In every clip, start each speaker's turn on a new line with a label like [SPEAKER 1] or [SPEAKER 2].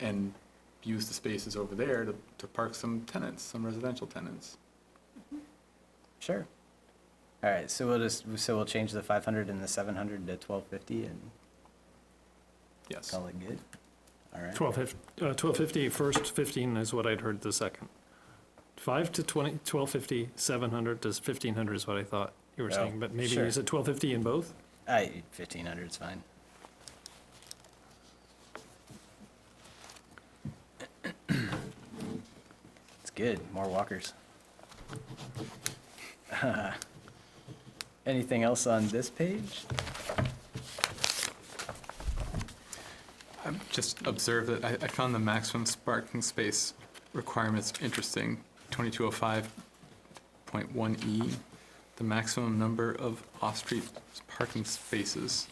[SPEAKER 1] and use the spaces over there to, to park some tenants, some residential tenants.
[SPEAKER 2] Sure. All right, so we'll just, so we'll change the five hundred and the seven hundred to twelve fifty and
[SPEAKER 1] Yes.
[SPEAKER 2] call it good. All right.
[SPEAKER 3] 12, fif- uh, 1250, first 15 is what I'd heard the second. 5 to 20, 1250, 700 to 1500 is what I thought you were
[SPEAKER 2] Oh,
[SPEAKER 3] saying, but maybe
[SPEAKER 2] sure.
[SPEAKER 3] is it 1250 in both?
[SPEAKER 2] I, fifteen hundred's fine. It's good, more walkers. Anything else on this page?
[SPEAKER 1] Just observe that I, I found the maximum parking space requirements interesting. 2205.1E, E, the maximum number of off-street parking spaces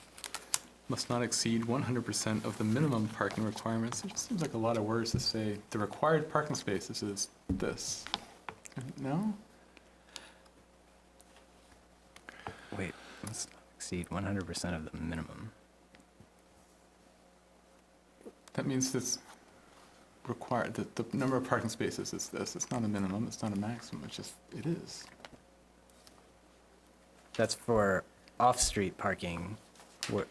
[SPEAKER 1] must not exceed 100% of the minimum parking requirements. It just seems like a lot of words to say, the required parking spaces is this. No?
[SPEAKER 2] Wait, let's exceed one hundred percent of the minimum.
[SPEAKER 1] That means this required, that the number of parking spaces is this. It's not a minimum, it's not a maximum, it's just, it is.
[SPEAKER 2] That's for off-street parking. Wha-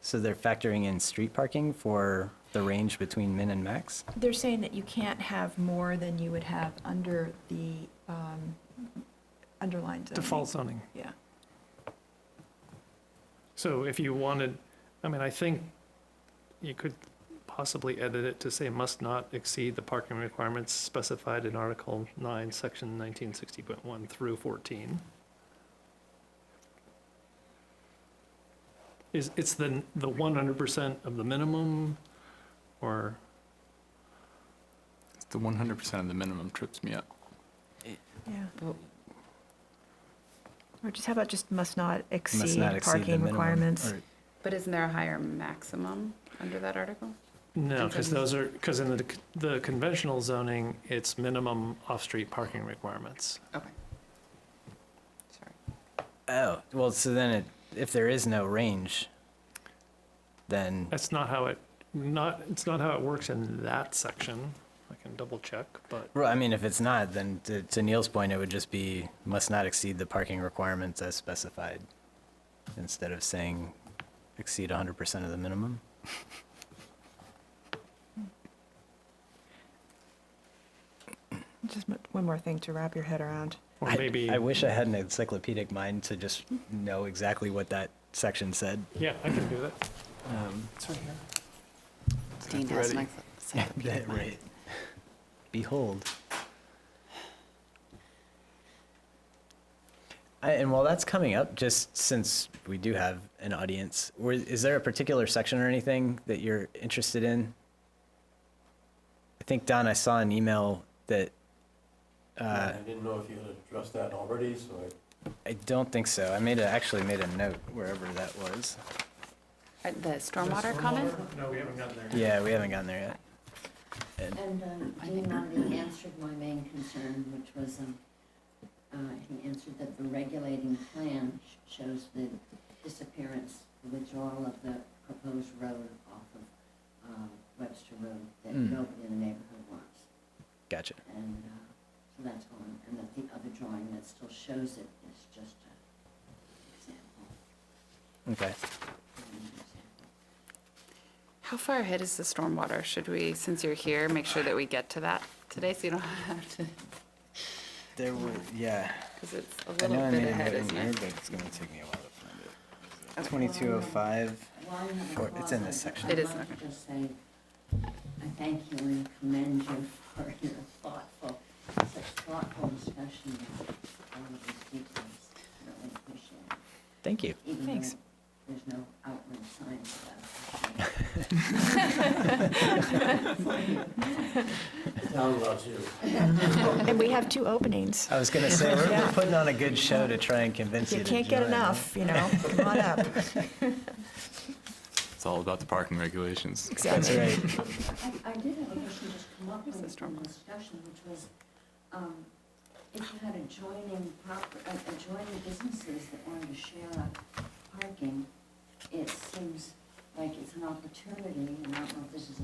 [SPEAKER 2] So they're factoring in street parking for the range between min and max?
[SPEAKER 4] They're saying that you can't have more than you would have under the um, underlined zoning.
[SPEAKER 3] Default zoning.
[SPEAKER 4] Yeah.
[SPEAKER 3] So if you wanted, I mean, I think you could possibly edit it to say must not exceed the parking requirements specified in Article 9, Section 1960.1 through 14. Is, it's the, the 100% of the minimum, or,
[SPEAKER 1] The 100% of the minimum trips me up.
[SPEAKER 4] Yeah.
[SPEAKER 2] Well-
[SPEAKER 4] Or just, how about just must not
[SPEAKER 2] Must
[SPEAKER 4] exceed
[SPEAKER 2] not exceed the
[SPEAKER 4] parking
[SPEAKER 2] minimum.
[SPEAKER 4] requirements?
[SPEAKER 1] Alright.
[SPEAKER 5] But isn't there a higher maximum under that article?
[SPEAKER 3] no, because
[SPEAKER 5] Conventional.
[SPEAKER 3] those are, because in the, the conventional zoning, it's minimum off-street parking requirements.
[SPEAKER 5] Okay. Sorry.
[SPEAKER 2] Oh, well, so then it, if there is no range, then,
[SPEAKER 3] That's not how it, not, it's not how it works in that section. I can double check, but
[SPEAKER 2] well, I mean, if it's not, then to- to Neil's point, it would just be must not exceed the parking requirements as specified, instead of saying exceed hundred percent of the minimum.
[SPEAKER 4] Just mo- one more thing to wrap your head around.
[SPEAKER 3] or
[SPEAKER 2] I-
[SPEAKER 3] maybe,
[SPEAKER 2] I wish I had an encyclopedic mind to just know exactly what that section said.
[SPEAKER 3] yeah, I can do that.
[SPEAKER 2] Um,
[SPEAKER 3] It's right here.
[SPEAKER 5] Dean has an
[SPEAKER 2] That-
[SPEAKER 5] encyclopedic mind.
[SPEAKER 2] right. Behold. I, and while that's coming up, just since we do have an audience, were, is there a particular section or anything that you're interested in? I think Don, I saw an email that. Uh,
[SPEAKER 6] I didn't know if you had addressed that already, so I
[SPEAKER 2] I don't think so. I made a, actually made a note wherever that was.
[SPEAKER 5] Uh, The stormwater comment?
[SPEAKER 3] No, we haven't gotten there.
[SPEAKER 2] Yeah, we haven't gotten there yet.
[SPEAKER 7] And um, Dean already answered my main concern, which was, um, uh, he answered that the regulating plan sh- shows the disappearance, the withdrawal of the proposed road off of uh, Webster Road that
[SPEAKER 2] Mm.
[SPEAKER 7] nobody in the neighborhood wants.
[SPEAKER 2] Gotcha.
[SPEAKER 7] And uh, so that's gone, and that the other drawing that still shows it is just an example.
[SPEAKER 2] Okay.
[SPEAKER 7] an example.
[SPEAKER 5] How far ahead is the stormwater? Should we, since you're here, make sure that we get to that today so you don't have to,
[SPEAKER 2] There were, yeah.
[SPEAKER 5] because it's a
[SPEAKER 2] I
[SPEAKER 5] little
[SPEAKER 2] know I
[SPEAKER 5] bit
[SPEAKER 2] made a
[SPEAKER 5] ahead,
[SPEAKER 2] note in
[SPEAKER 5] isn't
[SPEAKER 2] here,
[SPEAKER 5] it?
[SPEAKER 2] but it's gonna take me a while to find it. Twenty-two oh five.
[SPEAKER 7] Why not a
[SPEAKER 2] Sure, it's in this
[SPEAKER 7] closet?
[SPEAKER 2] section.
[SPEAKER 5] It is
[SPEAKER 7] I'd like
[SPEAKER 5] okay.
[SPEAKER 7] to just say, I thank you and commend you for your thoughtful, such thoughtful discussion of all of these details. Really appreciate it.
[SPEAKER 2] Thank you.
[SPEAKER 7] Even though
[SPEAKER 4] Thanks.
[SPEAKER 7] There's no outward signs about it.
[SPEAKER 6] the town loves you.
[SPEAKER 4] And we have two openings.
[SPEAKER 2] I was gonna say, we're, we're
[SPEAKER 4] Yeah.
[SPEAKER 2] putting on a good show to try and convince you
[SPEAKER 4] You
[SPEAKER 2] to
[SPEAKER 4] can't get
[SPEAKER 2] join, huh?
[SPEAKER 4] enough, you know, come on up.
[SPEAKER 1] It's all about the parking regulations.
[SPEAKER 2] That's
[SPEAKER 4] Exactly.
[SPEAKER 2] right.
[SPEAKER 7] I, I did have a question just come up
[SPEAKER 5] Here's
[SPEAKER 7] in
[SPEAKER 5] the
[SPEAKER 7] the
[SPEAKER 5] storm one.
[SPEAKER 7] discussion, which was, um, if you had adjoining proper, uh, adjoining businesses that wanted to share a parking, it seems like it's an opportunity, and I don't know if this is